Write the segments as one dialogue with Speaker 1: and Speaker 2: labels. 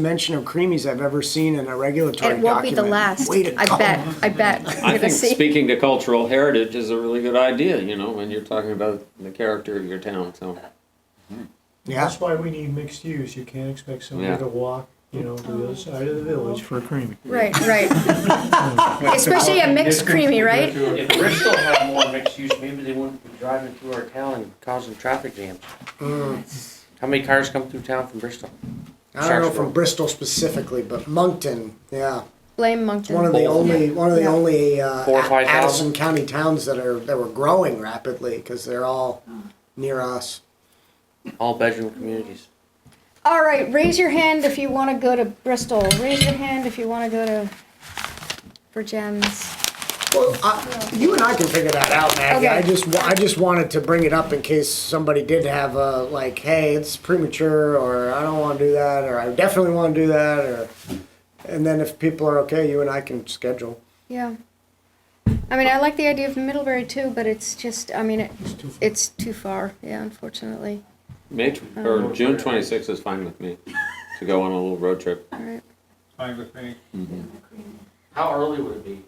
Speaker 1: mention of creamies I've ever seen in a regulatory
Speaker 2: And
Speaker 1: document.
Speaker 2: it won't be the last.
Speaker 1: Way to
Speaker 2: I
Speaker 1: go.
Speaker 2: bet, I bet. We're
Speaker 3: I
Speaker 2: gonna
Speaker 3: think
Speaker 2: see.
Speaker 3: speaking to cultural heritage is a really good idea, you know, when you're talking about the character of your town, so.
Speaker 1: Yeah,
Speaker 4: That's why we need mixed use. You can't expect
Speaker 3: Yeah.
Speaker 4: somebody to walk, you know, to the other side of the village for a cream.
Speaker 2: Right, right. Especially a mixed creamy, right?
Speaker 5: If Bristol had more mixed use, maybe they wouldn't be driving through our town and causing traffic jams. How many cars come through town from Bristol?
Speaker 1: I don't know
Speaker 5: Sharpsburg.
Speaker 1: from Bristol specifically, but Moncton, yeah,
Speaker 2: Blame
Speaker 1: it's one of
Speaker 2: Moncton.
Speaker 1: the only, one of the
Speaker 2: Yeah.
Speaker 1: only uh,
Speaker 5: Four or five
Speaker 1: Addison County towns that are, that were growing rapidly, because they're all near us.
Speaker 5: All bedroom communities.
Speaker 2: All right, raise your hand if you want to go to Bristol. Raise your hand if you want to go to for gems.
Speaker 1: Well, I- you and I can figure that out, Maggie. I
Speaker 2: Okay.
Speaker 1: just, wa- I just wanted to bring it up in case somebody did have a, like, hey, it's premature, or I don't want to do that, or I definitely want to do that, or, and then if people are okay, you and I can schedule.
Speaker 2: Yeah. I mean, I like the idea of Middlebury too, but it's just, I mean, it, it's too far. Yeah, unfortunately.
Speaker 3: May, tw-
Speaker 2: Oh.
Speaker 3: or June twenty-sixth is fine with me, to go on a little road trip.
Speaker 2: All right.
Speaker 6: Fine with me.
Speaker 5: How early would it be?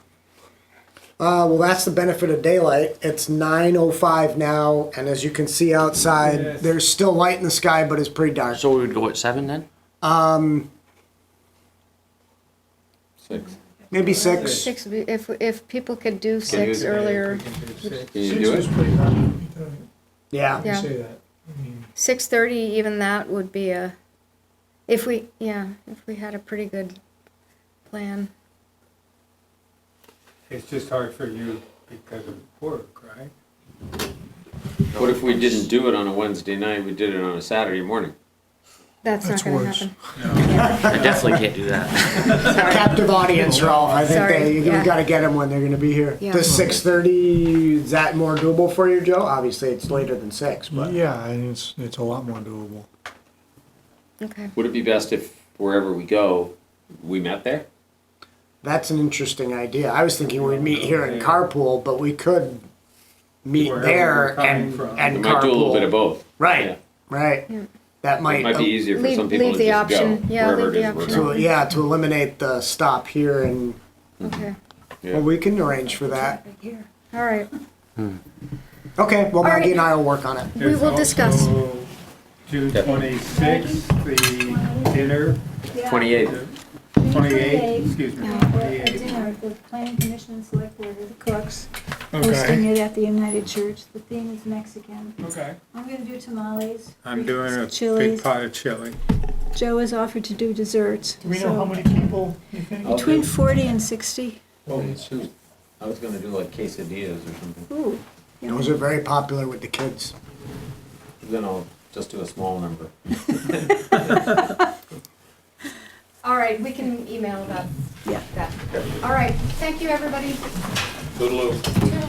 Speaker 1: Uh, well, that's the benefit of daylight. It's 9.05 now, and as you can see outside,
Speaker 6: Yes.
Speaker 1: there's still light in the sky, but it's pretty dark. Um,
Speaker 5: So we would go at seven then?
Speaker 3: Six.
Speaker 1: Maybe 6.
Speaker 2: Six, would be- if, if people could do six
Speaker 3: do-
Speaker 2: earlier,
Speaker 3: Can you do it?
Speaker 4: pretty hot.
Speaker 1: Yeah.
Speaker 4: You
Speaker 2: Yeah.
Speaker 4: say that. I mean,
Speaker 2: six thirty, even that would be a, if we, yeah, if we had a pretty good plan.
Speaker 6: It's just hard for you because of work, right?
Speaker 3: What if we didn't do it on a Wednesday night, we did it on a Saturday morning?
Speaker 2: That's not
Speaker 4: That's
Speaker 2: gonna
Speaker 4: worse.
Speaker 2: happen.
Speaker 5: I definitely can't do that.
Speaker 1: Captive audience, Ralph. I think
Speaker 2: Sorry,
Speaker 1: they, you
Speaker 2: yeah.
Speaker 1: got to get them when they're going to be here.
Speaker 2: Yeah.
Speaker 1: The 6.30, is that more doable for you, Joe? Obviously, it's later than 6, but...
Speaker 4: Yeah, and it's, it's a lot more doable.
Speaker 2: Okay.
Speaker 3: Would it be best if wherever we go, we met there?
Speaker 1: That's an interesting idea. I was thinking we'd meet here in carpool, but we could meet
Speaker 6: Wherever we're
Speaker 1: there
Speaker 6: coming
Speaker 1: and,
Speaker 6: from.
Speaker 3: We
Speaker 1: and carpool.
Speaker 3: might do a little bit of both.
Speaker 1: Right,
Speaker 3: Yeah.
Speaker 1: right.
Speaker 2: Yeah.
Speaker 1: That might,
Speaker 3: It might be easier for
Speaker 2: Leave-
Speaker 3: some people
Speaker 2: leave
Speaker 3: to
Speaker 2: the
Speaker 3: just go,
Speaker 2: option. Yeah,
Speaker 3: wherever
Speaker 2: leave
Speaker 3: it
Speaker 2: the
Speaker 3: is we're
Speaker 2: option.
Speaker 3: going.
Speaker 1: to, yeah, to eliminate the stop here and
Speaker 2: Okay,
Speaker 3: Yeah.
Speaker 1: well, we can arrange for that.
Speaker 2: all right.
Speaker 1: Okay, well,
Speaker 2: All
Speaker 1: Maggie
Speaker 2: right.
Speaker 1: and I will work on it.
Speaker 2: We will discuss.
Speaker 6: Also, June twenty-sixth, the dinner,
Speaker 3: Twenty-eighth,
Speaker 6: twenty-eighth, excuse me,
Speaker 7: A
Speaker 6: twenty-eighth.
Speaker 7: dinner, the planning commission and select board are the cooks, hosting it at the United Church. The theme is Mexican.
Speaker 6: Okay.
Speaker 7: I'm gonna do tamales.
Speaker 6: I'm doing a big
Speaker 7: Chilies.
Speaker 6: pot of chili.
Speaker 7: Joe has offered to do desserts.
Speaker 4: Do we know
Speaker 7: so
Speaker 4: how many people you think?
Speaker 7: Between forty and sixty.
Speaker 3: I was gonna do like quesadillas or something,
Speaker 7: Ooh.
Speaker 1: Those are very popular with the kids.
Speaker 3: then I'll just do a small number.
Speaker 2: All right, we can email about
Speaker 7: Yeah.
Speaker 2: that. All right, thank you, everybody.
Speaker 3: Toodaloo.
Speaker 2: Toodaloo.